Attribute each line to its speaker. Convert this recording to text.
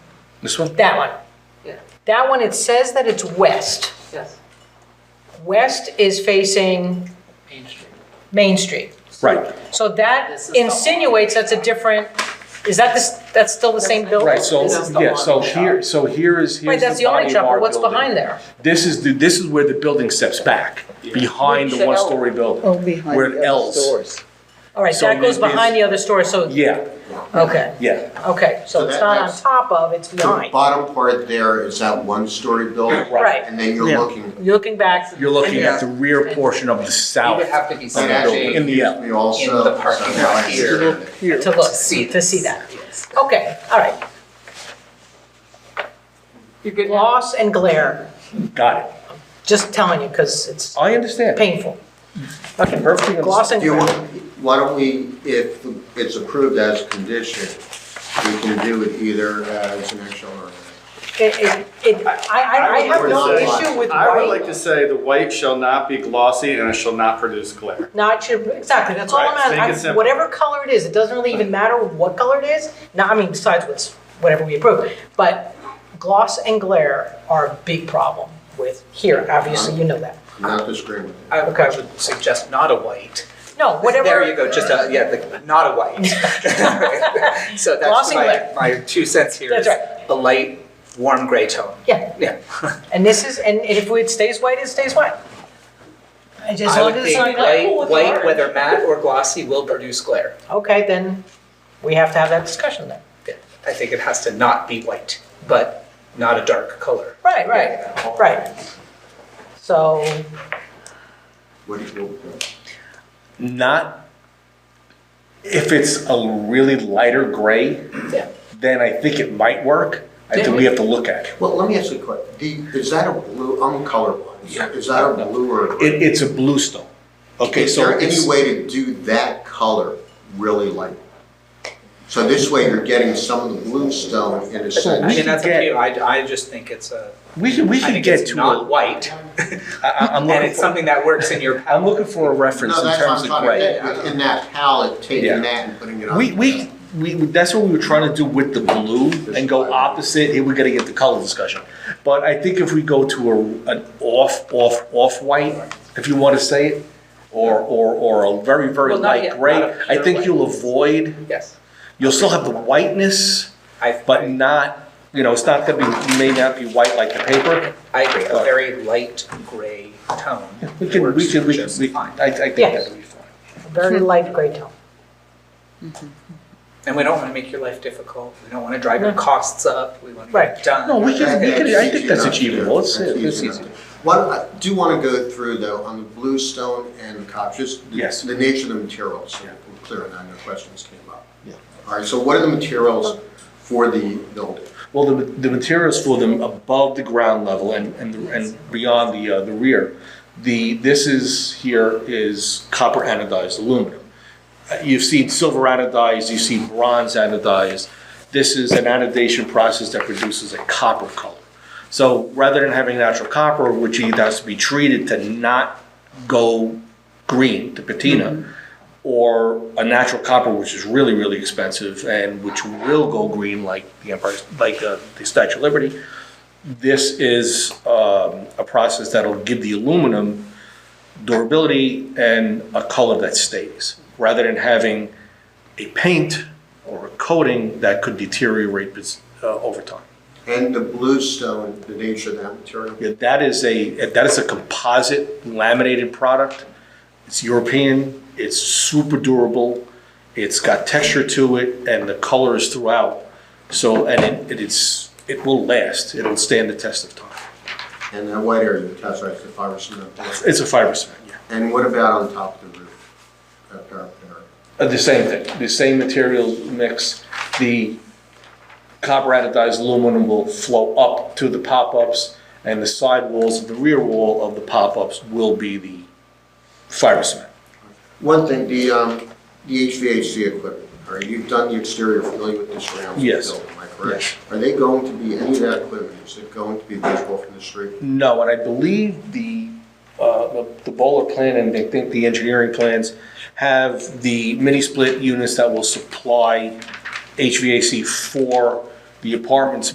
Speaker 1: This one?
Speaker 2: That one.
Speaker 3: Yeah.
Speaker 2: That one, it says that it's west.
Speaker 3: Yes,
Speaker 2: West is facing
Speaker 3: Main Street.
Speaker 2: Main Street.
Speaker 1: Right,
Speaker 2: So that
Speaker 3: This is the-
Speaker 2: insinuates that's a different, is that this, that's still the same building?
Speaker 1: right, so,
Speaker 3: This is the
Speaker 1: yeah,
Speaker 3: one
Speaker 1: so
Speaker 3: shop.
Speaker 1: here, so here is,
Speaker 2: Wait,
Speaker 1: here's
Speaker 2: that's
Speaker 1: the
Speaker 2: the only
Speaker 1: body of
Speaker 2: shop,
Speaker 1: our
Speaker 2: but what's behind there?
Speaker 1: This is, the this is where the building steps back, behind
Speaker 3: Which
Speaker 1: the
Speaker 3: the L-
Speaker 1: one-story building.
Speaker 4: Oh, behind
Speaker 1: We're at
Speaker 4: the other
Speaker 1: L's.
Speaker 4: stores.
Speaker 2: All right,
Speaker 1: So
Speaker 2: that
Speaker 1: it
Speaker 2: goes
Speaker 1: is-
Speaker 2: behind the other store, so,
Speaker 1: Yeah,
Speaker 2: okay,
Speaker 1: yeah,
Speaker 2: okay. So
Speaker 5: So
Speaker 2: it's
Speaker 5: that-
Speaker 2: not on
Speaker 5: that's-
Speaker 2: top of, it's
Speaker 5: The
Speaker 2: behind.
Speaker 5: bottom part there is that one-story building.
Speaker 2: Right.
Speaker 5: And then you're
Speaker 4: Yeah.
Speaker 5: looking,
Speaker 2: You're looking back,
Speaker 1: you're looking at the rear portion of the
Speaker 6: You
Speaker 1: south.
Speaker 6: would have to be
Speaker 5: and
Speaker 1: that
Speaker 5: actually,
Speaker 1: building. In
Speaker 6: searching
Speaker 1: the L.
Speaker 5: we also.
Speaker 6: In the parking
Speaker 5: somehow
Speaker 6: lot here.
Speaker 5: access it.
Speaker 4: Here.
Speaker 2: to look,
Speaker 6: to see
Speaker 2: to see
Speaker 6: this.
Speaker 2: that.
Speaker 6: Yes.
Speaker 2: Okay, all right.
Speaker 3: You're good now?
Speaker 2: Gloss and glare,
Speaker 1: Got it.
Speaker 2: just telling you, because it's
Speaker 1: I understand.
Speaker 2: painful.
Speaker 1: Perfectly
Speaker 2: Okay,
Speaker 1: understand.
Speaker 2: gloss and
Speaker 5: Do you
Speaker 2: glare.
Speaker 5: want, why don't we, if it's approved as condition, we can do it either as an action or.
Speaker 2: It, it, it, I, I, I
Speaker 7: I would
Speaker 2: have no
Speaker 5: like to say-
Speaker 2: issue with
Speaker 7: I would
Speaker 2: white,
Speaker 7: like to say the white shall not be glossy and it shall not produce glare.
Speaker 2: not your, exactly, that's all
Speaker 7: Right,
Speaker 2: I'm asking.
Speaker 7: make it
Speaker 2: I-
Speaker 7: simple.
Speaker 2: Whatever color it is, it doesn't really even matter what color it is, no, I mean, besides what's, whatever we approve. But gloss and glare are a big problem with here, obviously, you know that.
Speaker 5: I'm not disagreeing with you.
Speaker 6: I
Speaker 2: Okay.
Speaker 6: I would suggest not a white.
Speaker 2: No, whatever.
Speaker 6: There you go, just a, yeah, the, not a white. So that's
Speaker 2: Glossy
Speaker 6: my,
Speaker 2: white.
Speaker 6: my two cents here
Speaker 2: That's
Speaker 6: is a light, warm gray tone.
Speaker 2: Yeah.
Speaker 6: Yeah.
Speaker 2: And this is, and if it stays white, it stays white. As
Speaker 6: I
Speaker 2: long
Speaker 6: would
Speaker 2: as it's
Speaker 6: think
Speaker 2: not
Speaker 6: white,
Speaker 2: glare.
Speaker 6: white, whether matte or glossy, will produce glare.
Speaker 2: Okay, then we have to have that discussion then.
Speaker 6: I think it has to not be white, but not a dark color.
Speaker 2: Right, right, right. So,
Speaker 5: What do you go with that?
Speaker 1: not if it's a really lighter gray
Speaker 6: Yeah.
Speaker 1: then i think it might work i think we have to look at it.
Speaker 5: Well, let me ask you a question. The- Is that a blue, I'm colorblind. Is that- Is that a blue or? a green?
Speaker 1: it it's a blue stone okay
Speaker 5: Is
Speaker 1: so
Speaker 5: there any
Speaker 1: it's-
Speaker 5: way to do that color really light? So this way you're getting some of the bluestone in a
Speaker 6: I
Speaker 5: sense.
Speaker 1: We
Speaker 6: mean, that's up
Speaker 1: could
Speaker 6: to you. I, I just think it's a,
Speaker 1: we can we
Speaker 6: I
Speaker 1: can
Speaker 6: think
Speaker 1: get
Speaker 6: it's
Speaker 1: to
Speaker 6: not
Speaker 1: a,
Speaker 6: white.
Speaker 1: I, I- i'm
Speaker 6: And
Speaker 1: looking
Speaker 6: it's
Speaker 1: for,
Speaker 6: something that works in your
Speaker 1: i'm looking for a reference
Speaker 5: No,
Speaker 1: in
Speaker 5: that's what
Speaker 1: terms
Speaker 5: I'm
Speaker 1: of
Speaker 5: trying
Speaker 1: gray
Speaker 5: to get, in that palette,
Speaker 1: Yeah.
Speaker 5: taking that and putting it on.
Speaker 1: we we we, that's what we were trying to do with the blue and go opposite. Here we got to get the color discussion, but I think if we go to a an off off off white, if you want to say it, or or or a very very
Speaker 6: Well, not
Speaker 1: light
Speaker 6: yet,
Speaker 1: gray,
Speaker 6: not a
Speaker 1: I
Speaker 6: pure
Speaker 1: think
Speaker 6: white.
Speaker 1: you'll avoid.
Speaker 6: Yes.
Speaker 1: You'll still have the whiteness,
Speaker 6: I,
Speaker 1: but not you know it's not going to be may not be white like the paper.
Speaker 6: I agree, a very light gray tone.
Speaker 1: We can we
Speaker 6: works
Speaker 1: can we can
Speaker 6: just
Speaker 1: we,
Speaker 6: fine.
Speaker 1: I, I think
Speaker 2: Yes.
Speaker 1: that'll be fine.
Speaker 2: very light gray tone.
Speaker 6: And we don't want to make your life difficult, we don't want to drive your costs up, we want to get
Speaker 2: Right.
Speaker 6: it done.
Speaker 1: No, we can- we can- I think that's
Speaker 5: That's easy
Speaker 1: achievable. It's-
Speaker 5: enough, yeah.
Speaker 1: it's
Speaker 5: That's
Speaker 1: easy.
Speaker 5: enough. What, I do want to go through though, on the bluestone and the copper, just the-
Speaker 1: Yes.
Speaker 5: the nature of the materials, so we're clear on that, no questions came up. All right, so what are the materials for the building?
Speaker 1: Well, the, the materials for them above the ground level and, and, and beyond the, uh, the rear. The, this is, here is copper anodized aluminum. Uh, You've seen silver anodized, you've seen bronze anodized. This is an anodization process that produces a copper color. So rather than having natural copper, which either has to be treated to not go green, to patina, or a natural copper, which is really, really expensive and which will go green like the Empire, like uh, the Statue of Liberty. This is um, a process that'll give the aluminum durability and a color that stays, rather than having a paint or a coating that could deteriorate uh, over time.
Speaker 5: And the bluestone, the nature of that material?
Speaker 1: Yeah, that is a, that is a composite laminated product. It's European, it's super durable, it's got texture to it, and the color is throughout. So, and it, it is, it will last, it'll stand the test of time.
Speaker 5: And that white area, the tesseract, the fiber cement.
Speaker 1: It's a fiber cement, yeah.
Speaker 5: And what about on top of the roof? That parapet area?
Speaker 1: Uh, The same thing, the same material mix. The copper anodized aluminum will flow up to the pop-ups, and the side walls, the rear wall of the pop-ups will be the fiber cement.
Speaker 5: One thing, the, um, the HVAC equipment, all right, you've done the exterior, familiar with the surrounds of the
Speaker 1: Yes.
Speaker 5: building, am I correct? Are they going to be, any of that equipment, is it going to be visible from the street?
Speaker 1: No, and I believe the, uh, the- the Bowler plan and I think the engineering plans have the mini split units that will supply HVAC for the apartments